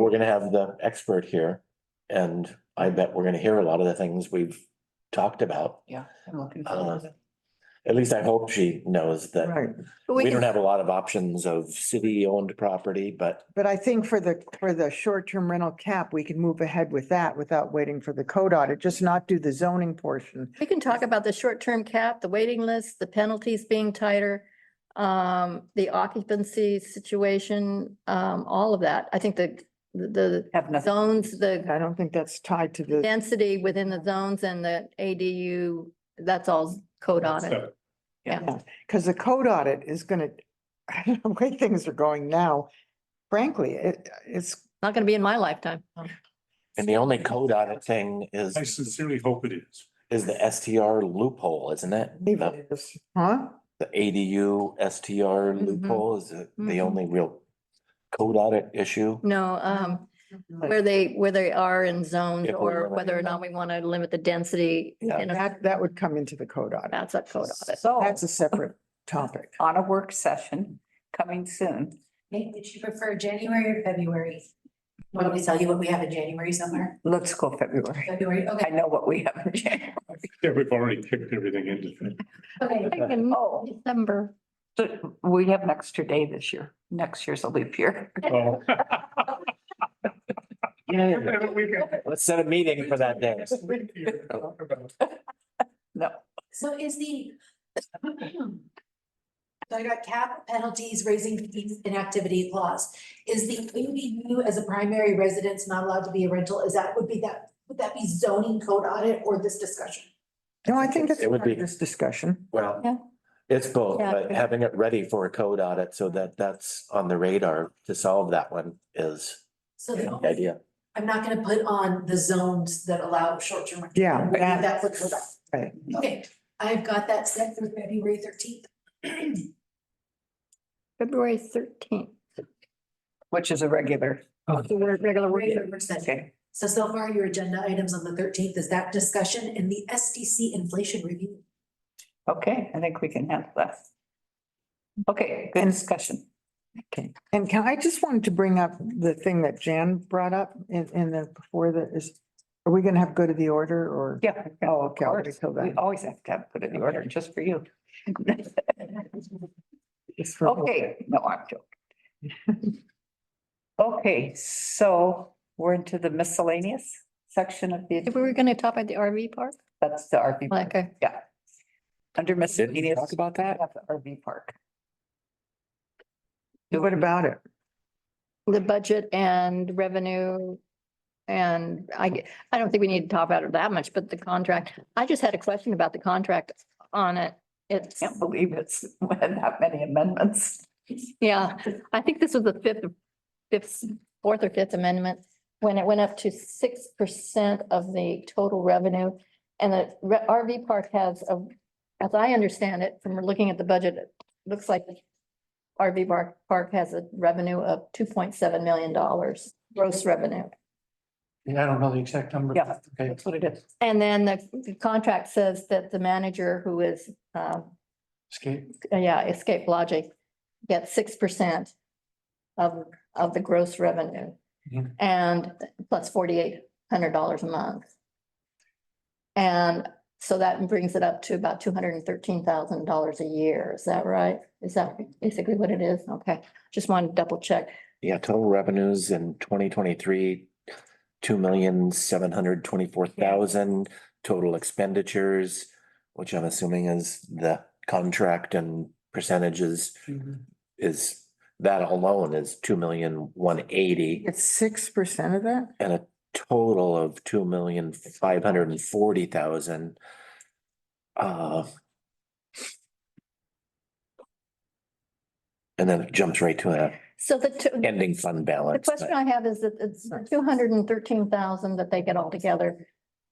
we're gonna have the expert here. And I bet we're gonna hear a lot of the things we've talked about. Yeah, I'm looking Uh, forward to At least I hope she knows that. that But we we don't can, have a lot of options of city-owned property, but But I think for the, for the short-term rental cap, we can move ahead with that without waiting for the code audit, just not do the zoning portion. We can talk about the short-term cap, the waiting list, the penalties being tighter, um, the occupancy situation, um, all of that. I think the, the have the nothing. zones, the I don't think that's tied to the, density within the zones and the ADU, that's all code on it. So, because the code audit is gonna, I don't know, the way things are going now. Frankly, it, it's, Not gonna be in my lifetime. and the only code audit thing is, I sincerely hope it is. is the STR loophole, isn't it? leave The it is, huh? the ADU STR Mhm. loophole is the- the Mhm. only real code audit issue. No, um, Like, where they, where they are in zones If we're or limiting whether or not we want to limit the density. Yeah. in a- That, that would come into the code audit. That's a code audit. So That's a separate topic. on a work session coming soon. Nick, would you prefer January or February? Why don't we tell you what we have in January somewhere? Let's go February. February, I okay, know what we have in January. Yeah, we've already kicked everything into. okay. In Oh, December. so we have an extra day this year. Next year's a leap year. Oh. Let's set a meeting for that day. No, So is the. So I got cap penalties, raising fees, inactivity clause. Is the ADU as a primary residence not allowed to be a rental? Is that, would be that, would that be zoning code audit or this discussion? No, I think that's It would part of be- this discussion. Yeah. Well, it's both, Yeah, but good. having it ready for a code audit so that that's on the radar to solve that one is So the the- idea. I'm not gonna put on the zones that allow short-term. rentals. Yeah, We'll leave that- That for code audit. Right. Okay, I've got that set for February thirteenth. February thirteenth. which is a regular. Regular work. Regular work session. Okay. So so far, your agenda items on the thirteenth is that discussion and the SDC inflation review. Okay, I think we can handle that. Okay, good discussion. Okay, and can, I just wanted to bring up the thing that Jan brought up in, in the, before the, is, are we gonna have go to the order or? Yeah. Oh, okay, I'll wait course. till We then. always have to have put in the order just for you. It's for- Okay, no, I'm joking. Okay, so we're into the miscellaneous section of If we were the, gonna talk about the RV park, that's the RV. park. like, Yeah. Under miscellaneous. talk about we that? have the RV park. What about it? the budget and revenue. And I, g- I don't think we need to talk about it that much, but the contract, I just had a question about the contract on it. It's, Can't believe it's had that many amendments. yeah, I think this was the fifth, fifth, fourth or fifth amendment. When it went up to six percent of the total revenue. And the re- RV park has, a- as I understand it, from looking at the budget, it looks like the RV park, park has a revenue of two point seven million dollars, gross revenue. Yeah, I don't know the exact number. Yeah, Okay. that's what it is. And then the, the contract says that the manager who is, um, uh, yeah, Escape Logic gets six percent of, of the gross revenue. Mhm. And plus forty-eight hundred dollars a month. And so that brings it up to about two hundred and thirteen thousand dollars a year. Is that right? Is that basically what it is? Okay, just wanted to double check. Yeah, total revenues in twenty twenty-three, two million, seven hundred twenty-four thousand, total expenditures, which I'm assuming is the contract and percentages is, that alone is two million, one eighty. It's six percent of that? and a total of two million five hundred and forty thousand. Uh. And then it jumps right to an So the, two- ending fund the balance. question I have is that it's two hundred and thirteen thousand that they get all together.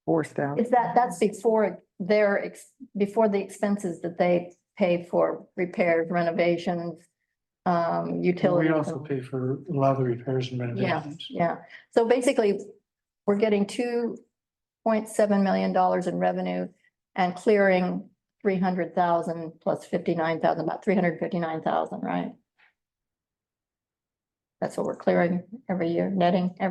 Four thousand. Is that, that's before their, ex- before the expenses that they pay for repairs, renovations, um, utilities. We also pay for a lot of the repairs and renovations. Yeah, so basically, we're getting two point seven million dollars in revenue and clearing three hundred thousand plus fifty-nine thousand, about three hundred fifty-nine thousand, right? That's what we're clearing every year, netting every